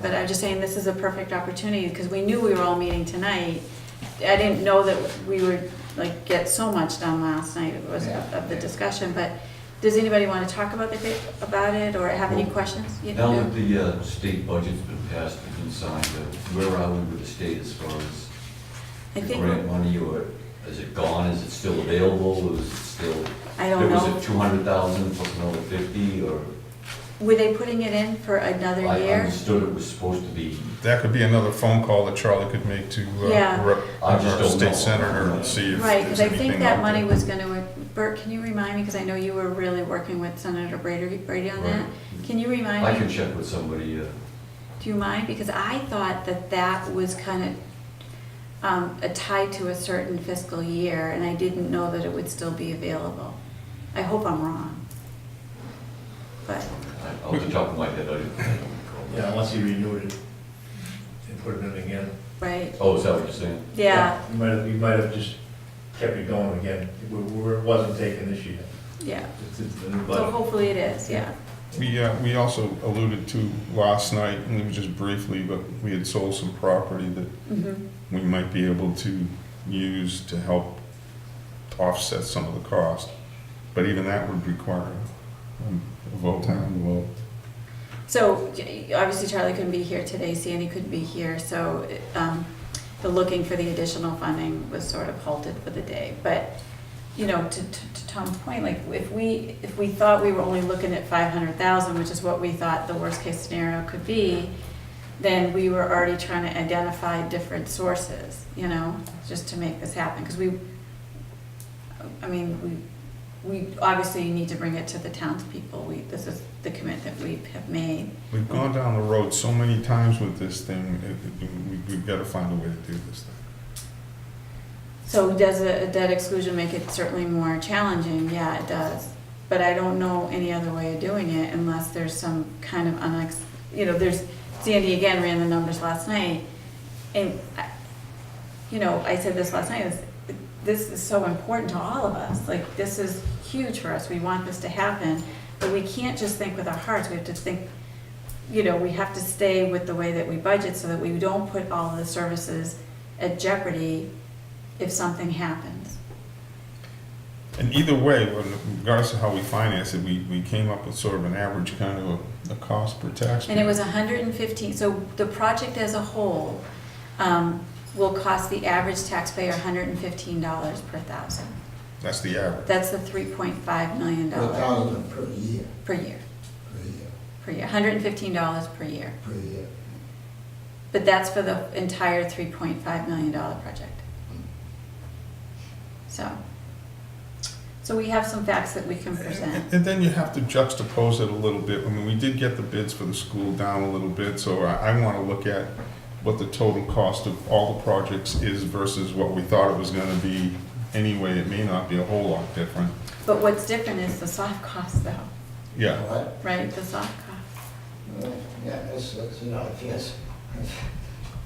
But I'm just saying, this is a perfect opportunity, because we knew we were all meeting tonight. I didn't know that we would, like, get so much done last night, it was Yeah. of the discussion, but does anybody want to talk about the, big- about it, or have any questions? You- Now no? that the uh, state budget's been passed and been signed, uh, where are we with the state as far as I the think, grant money, or is it gone, is it still available, or is it still? I don't There was know, a two hundred thousand plus another fifty, or? were they putting it in for another I year? understood it was supposed to be, That could be another phone call that Charlie could make to uh, Yeah. rep- I just our don't know. state senator and see if Right, there's because I think anything that out money there. was gonna, Bert, can you remind me, because I know you were really working with Senator Brady, Brady on that? Right. Can you remind me? I can check with somebody, uh, Do you mind? Because I thought that that was kind of um, a tie to a certain fiscal year, and I didn't know that it would still be available. I hope I'm wrong. But, I- uh, off the top of my head, I don't I don't recall. Yeah, unless you renewed it and put it in again. right, Oh, is that what you're saying? yeah, You might have, you might have just kept it going again, it wa- wa- it wasn't taken this year. yeah. It's- it's the new So budget. hopefully it is, yeah. We, uh, we also alluded to last night, and it was just briefly, but we had sold some property that Mhm. we might be able to use to help offset some of the cost. But even that would require um, a vote, town vote. So j- obviously Charlie couldn't be here today, Sandy couldn't be here, so um, the looking for the additional funding was sort of halted for the day. But, you know, to, to to Tom's point, like if we, if we thought we were only looking at five hundred thousand, which is what we thought the worst case scenario could be, then we were already trying to identify different sources, you know, just to make this happen. Because we, I mean, we, we obviously need to bring it to the townspeople. We, this is the commitment we have made. We've gone down the road so many times with this thing, it- it- we- we've got to find a way to do this thing. So does a a debt exclusion make it certainly more challenging? Yeah, it does. But I don't know any other way of doing it unless there's some kind of unex, you know, there's, Sandy again ran the numbers last night. And, I- you know, I said this last night, is, this is so important to all of us. Like, this is huge for us. We want this to happen. But we can't just think with our hearts. We have to think, you know, we have to stay with the way that we budget so that we don't put all of the services at jeopardy if something happens. And either way, regardless of how we finance it, we, we came up with sort of an average kind of a, a cost per tax. And it was hundred and fifteen, so the project as a whole, um, will cost the average taxpayer hundred and fifteen dollars per thousand. That's the average. That's the three point five million A dollars thousand per year, per year, per year, per year, hundred and fifteen dollars per year. per year. But that's for the entire three point five million dollar project. So, so we have some facts that we can present. And then you have to juxtapose it a little bit. I mean, we did get the bids for the school down a little bit, so I, I want to look at what the total cost of all the projects is versus what we thought it was going to be. Anyway, it may not be a whole lot different. But what's different is the soft cost though, Yeah, What? right, the soft cost. uh, Yeah, that's, that's an obvious.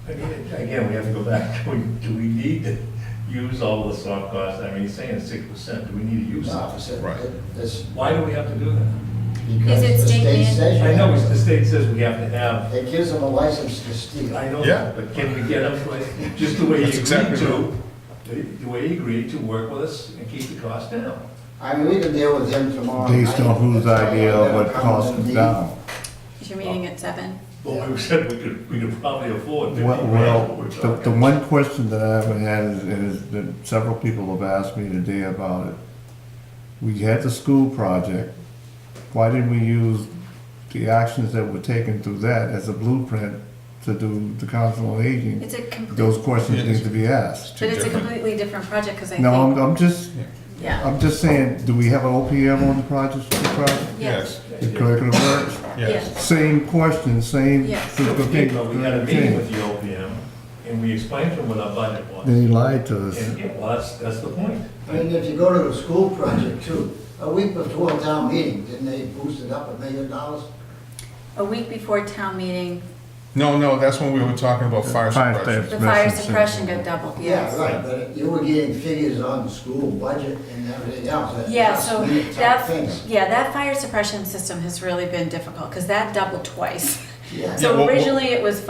Again, again, we have to go back, do we, do we need to use all the soft costs? I mean, he's saying six percent, do we need to use it? Officer, Right. this, Why do we have to do that? because it state the state man- says I you know, it's- have the state says we have to have, to. It gives them a license to steal. I know, Yeah. that, but can we get them, to- just the way That's he agreed exactly to, the the way he agreed to work with us and keep the cost down? I mean, we can deal with them tomorrow. Based night. on whose Tell them idea they'll of what come cost and is meet. down. Is your meeting at seven? Well, we said we could, we could probably afford fifty Well, grand. well, what we're the, the talking. one question that I haven't had is, is that several people have asked me today about it. We had the school project, why didn't we use the actions that were taken through that as a blueprint to do the council on aging? It's a complete. Those questions need to be asked. it's too But it's a different. completely different project, because I No, I'm, think, I'm just, yeah, I'm just saying, do we have an OPM on the project, the project, yes, Yes, the curriculum works? yes. yes, Same question, same. Yes. Okay, But we had a meeting with the OPM, and we explained to them what our budget was. Then he lied to us. And, yeah, well, that's, that's the point. I mean, if you go to the school project too, a week before town meeting, didn't they boost it up a million dollars? a week before town meeting, No, no, that's when we were talking about fire Fire suppression. suppression. the fire Suppression. suppression got doubled, Yeah, yes. right, but you were getting figures on the school budget and everything else. that- Yeah, so that's the type of that, things. yeah, that fire suppression system has really been difficult, because that doubled twice. Yeah. Yeah, So well, well- originally it was